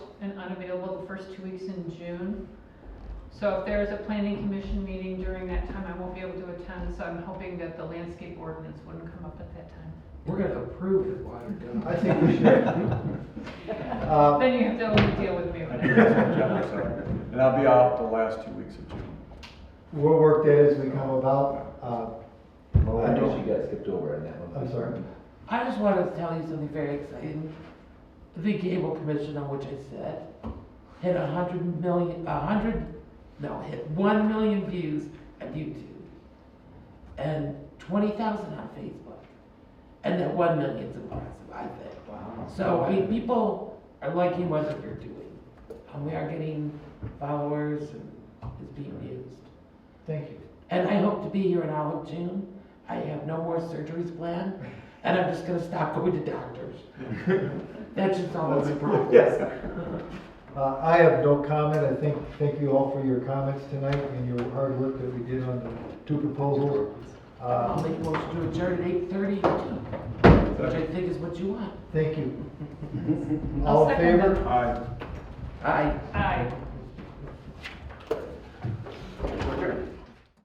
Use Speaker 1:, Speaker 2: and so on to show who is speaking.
Speaker 1: unavailable the first two weeks in June. So if there is a planning commission meeting during that time, I won't be able to attend, so I'm hoping that the landscape ordinance wouldn't come up at that time.
Speaker 2: We're gonna approve it while you're gone.
Speaker 3: I think we should. Uh,
Speaker 1: Then you have to only deal with me
Speaker 4: I
Speaker 1: when
Speaker 4: do
Speaker 1: I-
Speaker 4: have some jobs, so. And I'll be out the last two weeks of June.
Speaker 3: We'll work that as we come about. Uh,
Speaker 5: Well,
Speaker 3: I
Speaker 5: I guess
Speaker 3: don't-
Speaker 5: you got skipped over on that one.
Speaker 3: I'm sorry.
Speaker 2: I just wanted to tell you something very exciting. The Gable Commission, on which I said, hit a hundred million, a hundred, no, hit one million views on YouTube. And twenty thousand on Facebook. And that one million's impossible, I think.
Speaker 3: Wow.
Speaker 2: So, I mean, people are liking what we're doing. And we are getting followers and it's being used.
Speaker 3: Thank you.
Speaker 2: And I hope to be here in all of June. I have no more surgeries planned, and I'm just gonna stop going to doctors. That's just all that's important.
Speaker 3: Uh, I have no comment. I think, thank you all for your comments tonight and your hard work that we did on the two proposals. Uh,
Speaker 2: I'll make a motion to adjourn at eight thirty, which I think is what you want.
Speaker 3: Thank you.
Speaker 1: I'll
Speaker 3: All in
Speaker 1: second
Speaker 3: favor?
Speaker 1: that.
Speaker 4: Aye.
Speaker 2: Aye.
Speaker 1: Aye.